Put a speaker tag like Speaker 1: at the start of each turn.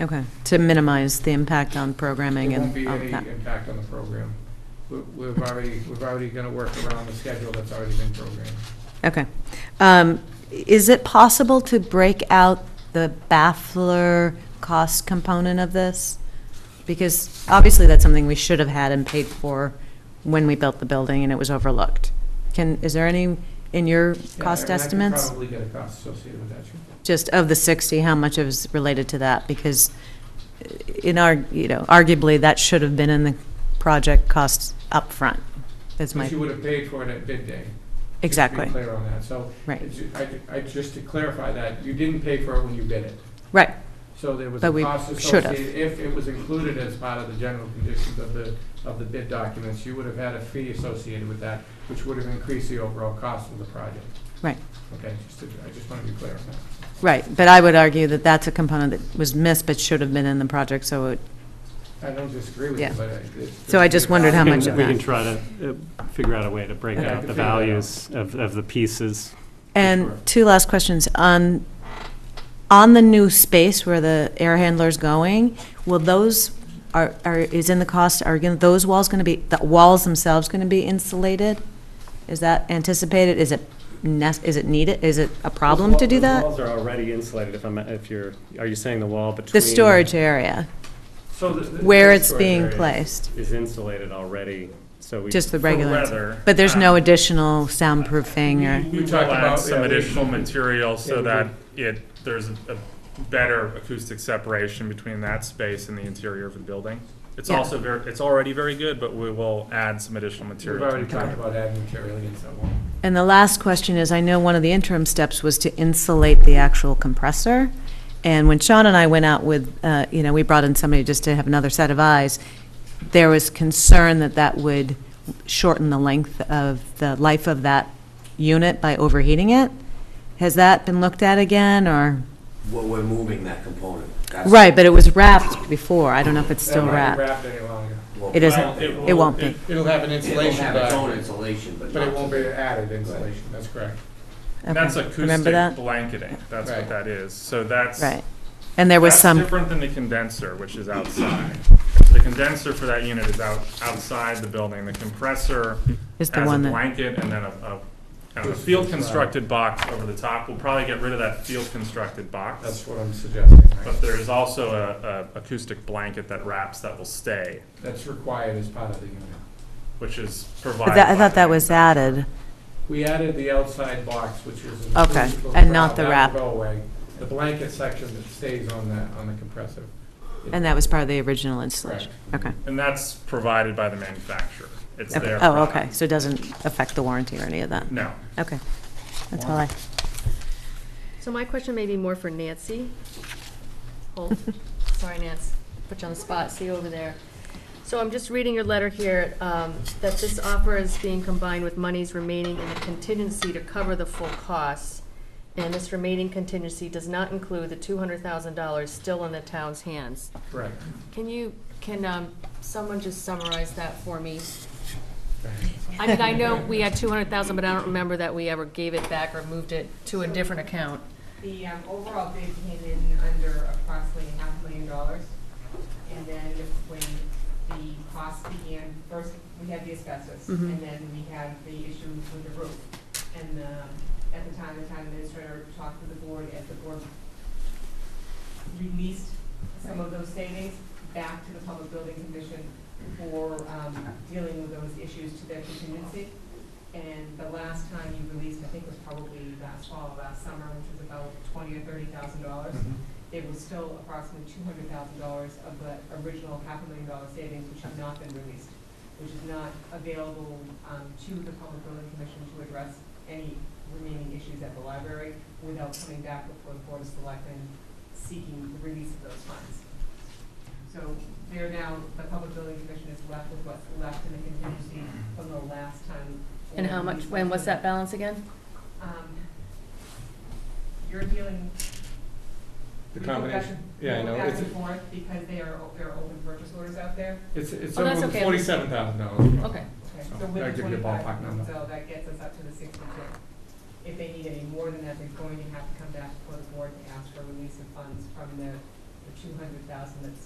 Speaker 1: Okay, to minimize the impact on programming
Speaker 2: There
Speaker 1: and
Speaker 2: won't be
Speaker 1: all of
Speaker 2: any
Speaker 1: that.
Speaker 2: impact on the program. We- We've already, we've already going to work around the schedule that's already been programmed.
Speaker 1: Okay. Um, Is it possible to break out the baffler cost component of this? Because obviously, that's something we should have had and paid for when we built the building, and it was overlooked. Can, is there any in your
Speaker 2: Yeah,
Speaker 1: cost
Speaker 2: and I could
Speaker 1: estimates?
Speaker 2: Probably get a cost associated with that, sure.
Speaker 1: Just of the 60, how much is related to that? Because uh, in our, you know, arguably, that should have been in the project costs upfront, is my,
Speaker 2: But you would have paid for it at bid day. just to
Speaker 1: exactly.
Speaker 2: be clear on that, so.
Speaker 1: Right.
Speaker 2: it's- I, I- just to clarify that, you didn't pay for it when you bid it.
Speaker 1: Right,
Speaker 2: So there was
Speaker 1: But
Speaker 2: a
Speaker 1: we
Speaker 2: cost
Speaker 1: should have.
Speaker 2: associated, if it was included as part of the general conditions of the, of the bid documents, you would have had a fee associated with that, which would have increased the overall cost of the project.
Speaker 1: Right.
Speaker 2: Okay, just to, I just want to be clear on that.
Speaker 1: right. But I would argue that that's a component that was missed but should have been in the project, so it
Speaker 2: I don't disagree with you,
Speaker 1: Yeah.
Speaker 2: but. I- it's-
Speaker 1: So I just wondered how
Speaker 3: We can-
Speaker 1: much of
Speaker 3: We
Speaker 1: that.
Speaker 3: can try to uh, figure out a way to break
Speaker 2: Yeah, I
Speaker 3: out
Speaker 2: can
Speaker 3: the
Speaker 2: figure that out.
Speaker 3: values of, of the pieces.
Speaker 1: And
Speaker 2: Correct.
Speaker 1: two last questions. On, on the new space where the air handler's going, will those, are, are is in the cost, are gonna- those walls going to be, the walls themselves going to be insulated? Is that anticipated? Is it, nes- is it needed? Is it a problem to do
Speaker 3: The
Speaker 1: that?
Speaker 3: walls are already insulated, if I'm, if you're, are you saying the wall between?
Speaker 1: The storage area,
Speaker 2: So the- the-
Speaker 1: where
Speaker 2: the
Speaker 1: it's
Speaker 2: story-
Speaker 1: being
Speaker 3: areas.
Speaker 1: placed,
Speaker 3: Is insulated already, so we.
Speaker 1: just the
Speaker 3: for
Speaker 1: regular.
Speaker 4: weather,
Speaker 1: But there's
Speaker 4: um,
Speaker 1: no additional soundproofing or,
Speaker 4: We
Speaker 2: We
Speaker 4: will
Speaker 2: talked
Speaker 4: add
Speaker 2: about-
Speaker 4: some
Speaker 2: yeah, we-
Speaker 4: additional material
Speaker 2: Yeah,
Speaker 4: so
Speaker 2: we
Speaker 4: that it, there's a a better acoustic separation between that space and the interior of the building. It's
Speaker 1: Yeah.
Speaker 4: also very, it's already very good, but we will add some additional
Speaker 2: We've
Speaker 4: material. to
Speaker 2: already
Speaker 4: it.
Speaker 2: talked about adding material against that wall.
Speaker 1: and the last question is, I know one of the interim steps was to insulate the actual compressor. And when Sean and I went out with, uh, you know, we brought in somebody just to have another set of eyes, there was concern that that would shorten the length of the life of that unit by overheating it. Has that been looked at again, or?
Speaker 5: Well, we're moving that component. That's-
Speaker 1: Right, but it was wrapped before. I don't know if it's still
Speaker 2: That might be
Speaker 1: wrapped.
Speaker 2: Wrapped any longer.
Speaker 5: well,
Speaker 1: It isn't.
Speaker 4: Well,
Speaker 5: It'll
Speaker 1: It won't be.
Speaker 2: It'll have an insulation,
Speaker 5: have its own
Speaker 2: but,
Speaker 5: insulation, but
Speaker 2: but it won't
Speaker 5: not.
Speaker 2: be added insulation, that's correct.
Speaker 1: Okay.
Speaker 4: That's
Speaker 1: Remember
Speaker 4: acoustic
Speaker 1: that?
Speaker 4: blanketing, that's
Speaker 2: Right.
Speaker 4: what that is, so that's.
Speaker 1: Right. And there was
Speaker 4: that's
Speaker 1: some,
Speaker 4: different than the condenser, which is outside. The condenser for that unit is out, outside the building, the compressor
Speaker 1: is the
Speaker 4: as a
Speaker 1: one that,
Speaker 4: blanket and then a, a, kind of a field constructed box over the top. We'll probably get rid of that field constructed box.
Speaker 2: That's what I'm suggesting. right?
Speaker 4: But there is also a, a acoustic blanket that wraps that will stay,
Speaker 2: That's required as part of the unit.
Speaker 4: which is
Speaker 1: But
Speaker 4: provided.
Speaker 1: that- I
Speaker 4: by
Speaker 1: thought
Speaker 4: the
Speaker 1: that was
Speaker 4: manufacturer.
Speaker 1: added.
Speaker 2: We added the outside box, which is. an
Speaker 1: Okay,
Speaker 2: acoustical
Speaker 1: and not the
Speaker 2: shroud.
Speaker 1: wrap.
Speaker 2: That will go away. The blanket section that stays on the, on the compressor.
Speaker 1: And that was part of the original installation? Okay.
Speaker 4: And that's provided by the manufacturer. It's
Speaker 1: Okay.
Speaker 4: their.
Speaker 1: Oh,
Speaker 4: product.
Speaker 1: okay, so it doesn't affect the warranty or any of that?
Speaker 4: No.
Speaker 1: Okay, that's all I,
Speaker 6: So my question may be more for Nancy. Hold, sorry, Nance, put you on the spot, see you over there. So I'm just reading your letter here, um, that this offer is being combined with monies remaining in the contingency to cover the full costs. And this remaining contingency does not include the two hundred thousand dollars still in the town's hands.
Speaker 2: Correct.
Speaker 6: Can you, can, um, someone just summarize that for me? I mean, I know we had two hundred thousand, but I don't remember that we ever gave it back or moved it to a different account.
Speaker 7: The um, overall bid came in under approximately half a million dollars. And then when the cost began, first we had the asbestos, and then we had the issue with the roof. And um, at the time, the town administrator talked to the board, as the board released some of those savings back to the Public Building Commission for um, dealing with those issues to their contingency. And the last time you released, I think it was probably last fall, last summer, which was about twenty or thirty thousand dollars.
Speaker 2: Mm-hmm.
Speaker 7: There was still approximately two hundred thousand dollars of the original half a million dollar savings, which have not been released, which is not available um, to the Public Building Commission to address any remaining issues at the library without coming back before the Board of Selectmen seeking the release of those funds. So they're now, the Public Building Commission is left with what's left in the contingency from the last time.
Speaker 6: And how much, when was that balance again?
Speaker 7: Um, You're dealing.
Speaker 2: The
Speaker 7: we go back
Speaker 2: combination,
Speaker 7: and-
Speaker 2: yeah, I
Speaker 7: we go
Speaker 2: know,
Speaker 7: Back
Speaker 2: it's,
Speaker 7: and forth because they are, o- there are open purchase orders out there.
Speaker 2: it's, it's
Speaker 6: Oh, that's
Speaker 2: over
Speaker 6: okay.
Speaker 2: forty-seven thousand dollars.
Speaker 6: Okay.
Speaker 7: Okay,
Speaker 2: So
Speaker 7: so
Speaker 2: that'll
Speaker 7: with
Speaker 2: give
Speaker 7: the
Speaker 2: Oh, you a ballpark number.
Speaker 7: twenty-five, so that gets us up to the sixty-two. If they need any more than that, they're going to have to come back before the board and ask for release of funds from the the two hundred thousand that's